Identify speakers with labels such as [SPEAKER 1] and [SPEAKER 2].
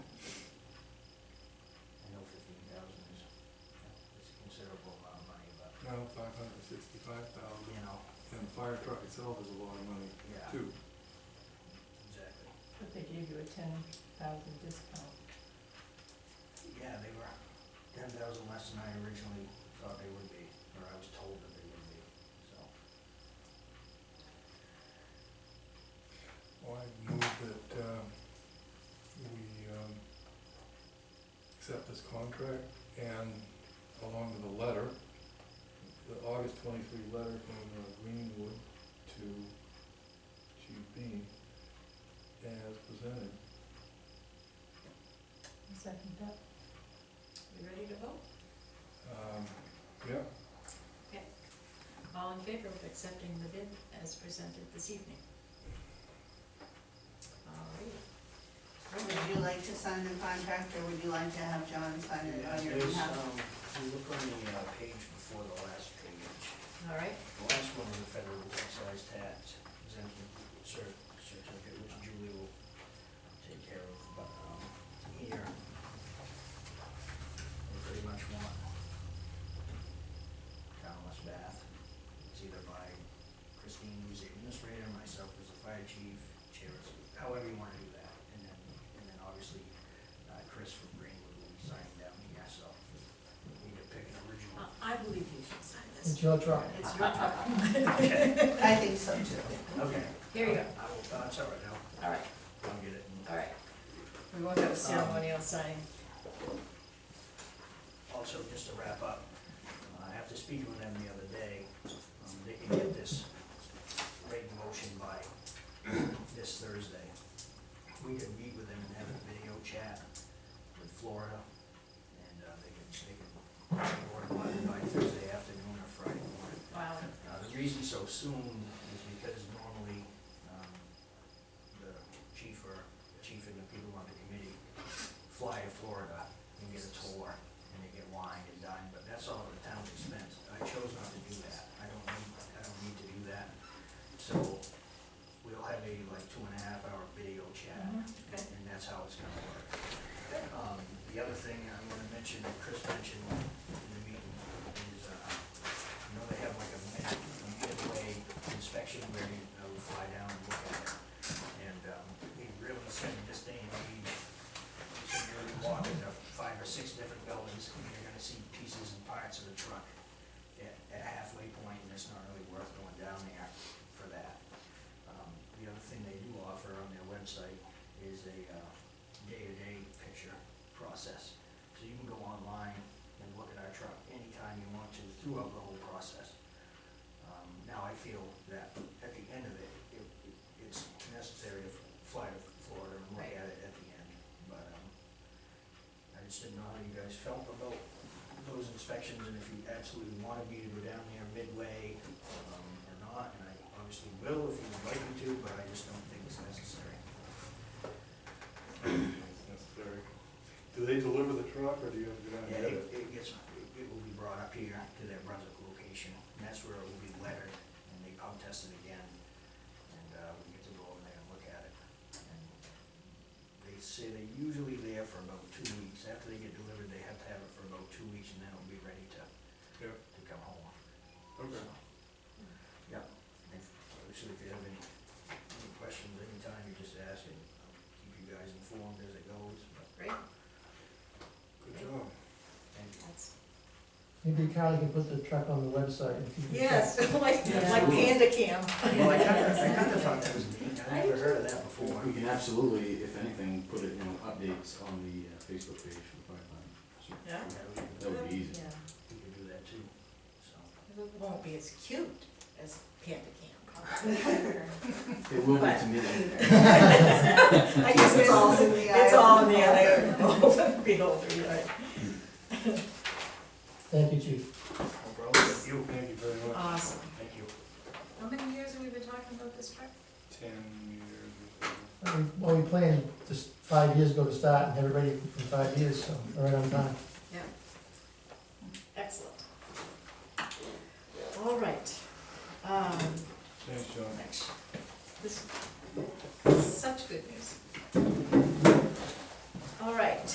[SPEAKER 1] truck itself is a lot of money,
[SPEAKER 2] Yeah.
[SPEAKER 1] too.
[SPEAKER 2] Exactly.
[SPEAKER 3] But they gave you a ten thousand discount.
[SPEAKER 2] Yeah, they were ten thousand less than I originally thought they would be, or I was told that they would be, so.
[SPEAKER 1] Well, I move that, um, we, um, accept this contract and along with the letter, the August twenty-three letter from uh, Greenwood to Chief Bean as presented.
[SPEAKER 3] I Second that.
[SPEAKER 4] You ready to vote?
[SPEAKER 1] Um, yeah,
[SPEAKER 4] All in favor of accepting the bid as presented this evening? All right,
[SPEAKER 5] Would you like to sign the contract, or would you like to have John sign it on your
[SPEAKER 2] There's,
[SPEAKER 5] behalf?
[SPEAKER 2] um, if you look on the uh, page before the last page,
[SPEAKER 4] all right,
[SPEAKER 2] the last one is the federal excise tax exemption cer- certificate, which Julie will take care of, but, um, here, we pretty much want townless bath. It's either by Christine, who's the administrator, myself as the fire chief, chair, is- however you wanna do that, and then, and then obviously, uh, Chris from Greenwood will be signing down here, so we need to pick an
[SPEAKER 4] Uh,
[SPEAKER 2] original.
[SPEAKER 4] I believe you should sign
[SPEAKER 2] It's
[SPEAKER 4] this.
[SPEAKER 2] your truck.
[SPEAKER 4] It's your truck.
[SPEAKER 5] I think so too.
[SPEAKER 2] Okay.
[SPEAKER 4] Oh, Here you go,
[SPEAKER 2] I will, uh, it's all right, I'll,
[SPEAKER 4] all right,
[SPEAKER 2] I'll get it.
[SPEAKER 4] all right. Um, We won't have a ceremonial signing.
[SPEAKER 2] Also, just to wrap up, uh, I have to speak with them the other day, um, they can get this rate motion by this Thursday. We could meet with them and have a video chat with Florida, and, uh, they can, they can, work on it by Thursday afternoon or Friday morning.
[SPEAKER 4] Wow,
[SPEAKER 2] Uh, the reason so soon is because normally, um, the chief or, chief and the people on the committee fly to Florida and get a tour, and they get wine and dine, but that's all at the town's expense. I chose not to do that, I don't need, I don't need to do that. So, we'll have a like two and a half hour video chat,
[SPEAKER 3] Mhm,
[SPEAKER 4] okay.
[SPEAKER 2] and that's how it's gonna work. Um, the other thing I wanna mention, that Chris mentioned in the meeting, is, uh, you know, they have like a mid- a midway inspection where you uh, we fly down and look at it. And um, we really said in this day and age, you should really walk into five or six different buildings, and you're gonna see pieces and parts of the truck at at halfway point, and it's not really worth going down there for that. Um, The other thing they do offer on their website is a uh, day-to-day picture process. So you can go online and look at our truck anytime you want to throughout the whole process. Um, Now, I feel that at the end of it, it, it- it's necessary to fly to Florida and look at it at the end, but, um, I just didn't know how you guys felt about those inspections, and if you absolutely wanted me to go down there midway, um, or not, and I obviously will if you would like me to, but I just don't think it's necessary.
[SPEAKER 1] it's necessary. Do they deliver the truck or do you have to go down and
[SPEAKER 2] Yeah,
[SPEAKER 1] get
[SPEAKER 2] it,
[SPEAKER 1] it?
[SPEAKER 2] it gets, it will be brought up here to their Brunswick location, and that's where it will be lettered, and they pump test it again, and, uh, we get to go over there and look at it. And They say they're usually there for about two weeks, after they get delivered, they have to have it for about two weeks, and then it'll be ready to,
[SPEAKER 1] Yeah,
[SPEAKER 2] to come home.
[SPEAKER 1] okay.
[SPEAKER 2] Yeah, if, obviously, if you have any, any questions, anytime, you just ask, and I'll keep you guys informed as it goes, but
[SPEAKER 4] great,
[SPEAKER 1] Good job.
[SPEAKER 2] thank you.
[SPEAKER 4] that's.
[SPEAKER 6] Maybe Carly can put the truck on the website. if you-
[SPEAKER 4] Yes, like, like panda cam.
[SPEAKER 2] Well, I kinda, I kinda thought that was neat, I never heard of that before.
[SPEAKER 7] We can absolutely, if anything, put it, you know, updates on the uh, Facebook page for the fire department. So
[SPEAKER 4] Yeah.
[SPEAKER 2] Yeah, we could,
[SPEAKER 7] That would be easy.
[SPEAKER 4] Yeah.
[SPEAKER 2] we could do that too, so.
[SPEAKER 4] It won't be as cute as panda cam.
[SPEAKER 7] It will be to me.
[SPEAKER 4] I guess
[SPEAKER 5] It's all in the eye
[SPEAKER 4] It's
[SPEAKER 5] of
[SPEAKER 4] all in
[SPEAKER 5] the
[SPEAKER 4] the eye of the beholder, you're right.
[SPEAKER 6] Thank you, chief.
[SPEAKER 2] No problem. You,
[SPEAKER 1] Thank you very much.
[SPEAKER 4] Awesome.
[SPEAKER 2] thank you.
[SPEAKER 4] How many years have we been talking about this truck?
[SPEAKER 1] Ten years or so.
[SPEAKER 6] Uh, We- Well, we planned just five years ago to start and had it ready for five years, so right on time.
[SPEAKER 4] Excellent. All right. Um,
[SPEAKER 1] Thanks, John.
[SPEAKER 4] Next. This, such good news.